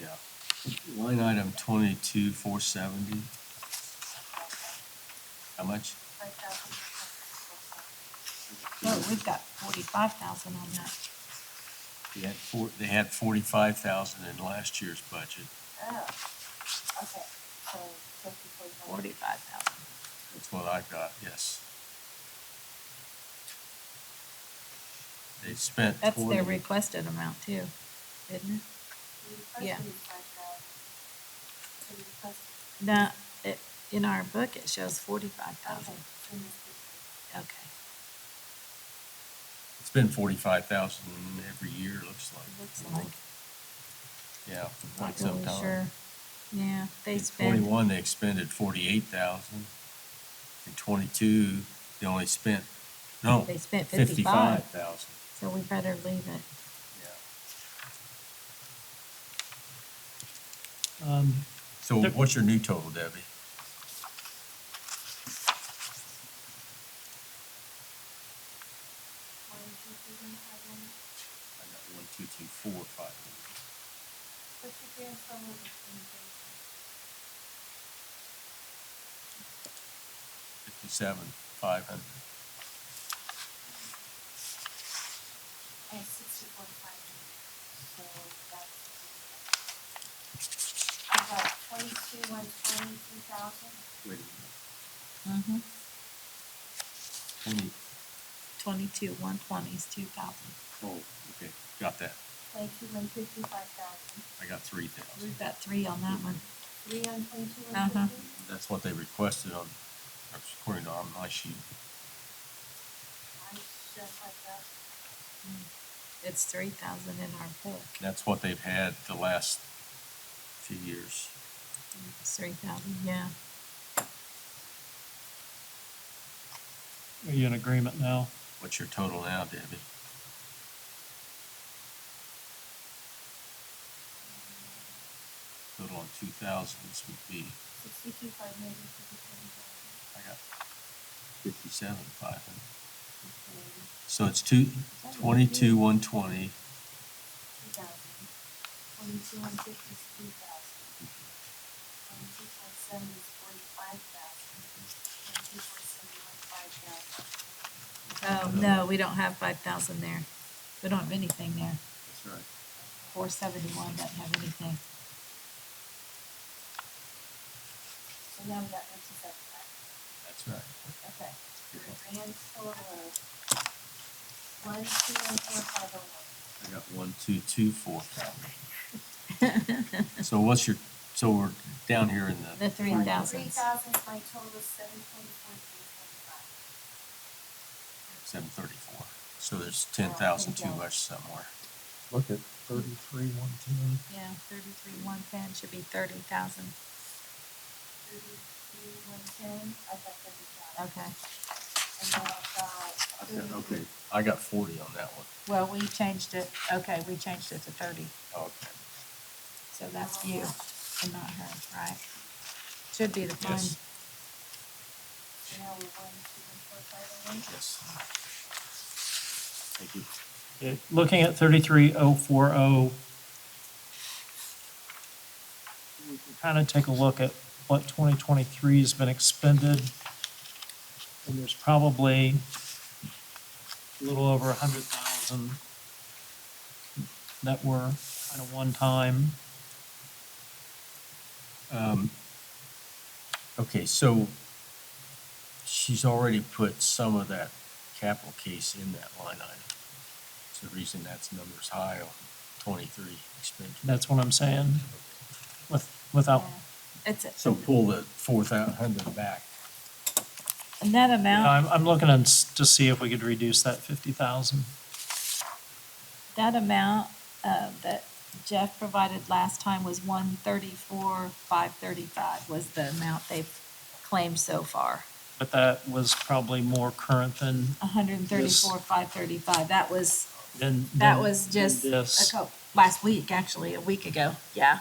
Yeah. Line item twenty-two, four seventy, how much? No, we've got forty-five thousand on that. They had four, they had forty-five thousand in last year's budget. Forty-five thousand. That's what I got, yes. They spent That's their twenty, requested amount too, isn't it? Yeah. No, it, in our book, it shows forty-five thousand. Okay. it's been forty-five thousand every year, looks like. Looks like, Yeah, for not quite some really sure. time. Yeah, they In spend, Twenty-one, they expended forty-eight thousand. In twenty-two, they only spent, no, they spent fifty-five fifty-five, thousand. so we better leave it. Um, So There- what's your new total, Debbie? I got one, two, two, four, five. Fifty-seven, five hundred. And sixty-four five hundred, so that's. I've got twenty-two, one twenty-two thousand, Wait a Mm-hmm. minute. Twenty, Twenty-two, one twenty is two thousand. oh, okay, got that. twenty-two, one fifty-five thousand, I got three thousand. We've got three on that one. three on twenty-two, one Uh-huh. fifty. That's what they requested on, according to on my sheet. I just like that, It's three thousand in our book. That's what they've had the last few years. It's three thousand, yeah. are you in agreement now? What's your total now, Debbie? Total on two thousands would be, sixty-two, five hundred, fifty-seven thousand, I got fifty-seven, five hundred. fifty-eight, So it's two, twenty-two, one twenty, two thousand, twenty-two, one fifty-two thousand, twenty-two, four seventy, forty-five thousand, twenty-two, four seventy-one, five thousand. Oh, no, we don't have five thousand there. We don't have anything there. that's right. Four seventy-one doesn't have anything. So now we got fifty-seven, right? That's right. Okay, your grand total of one, two, one, four, five, oh, one. I got one, two, two, four thousand. So what's your, so we're down here in the, The three Three thousands. thousand, my total is seven twenty-four, three twenty-five. seven thirty-four. So there's ten thousand too much somewhere. Look at thirty-three, one, ten. Yeah, thirty-three, one ten should be thirty thousand. Thirty-three, one ten, I've got thirty thousand. Okay. And then I've got thirty. I got forty on that one. Well, we changed it, okay, we changed it to thirty, Oh, Okay. so that's you and not her, right? Should be the fine. Yes. So now we're one, two, one, four, five, oh, one. Yes. Thank you. Okay, Looking at thirty-three oh four oh, we can kind of take a look at what twenty twenty-three has been expended. And there's probably a little over a hundred thousand that were kind of one-time. Um, Okay, so she's already put some of that capital case in that line item. It's the reason that's number's high on twenty-three expenditure. That's what I'm saying. With, without, It's, a- So pull the four thousand hundred back. and that amount, I'm, I'm looking and s- to see if we could reduce that fifty thousand. that amount, uh, that Jeff provided last time was one thirty-four, five thirty-five was the amount they've claimed so far. But that was probably more current than, hundred and thirty-four, five thirty-five, that was, than. that than- was than just a this. Oh, couple, last week, actually, a week ago, yeah.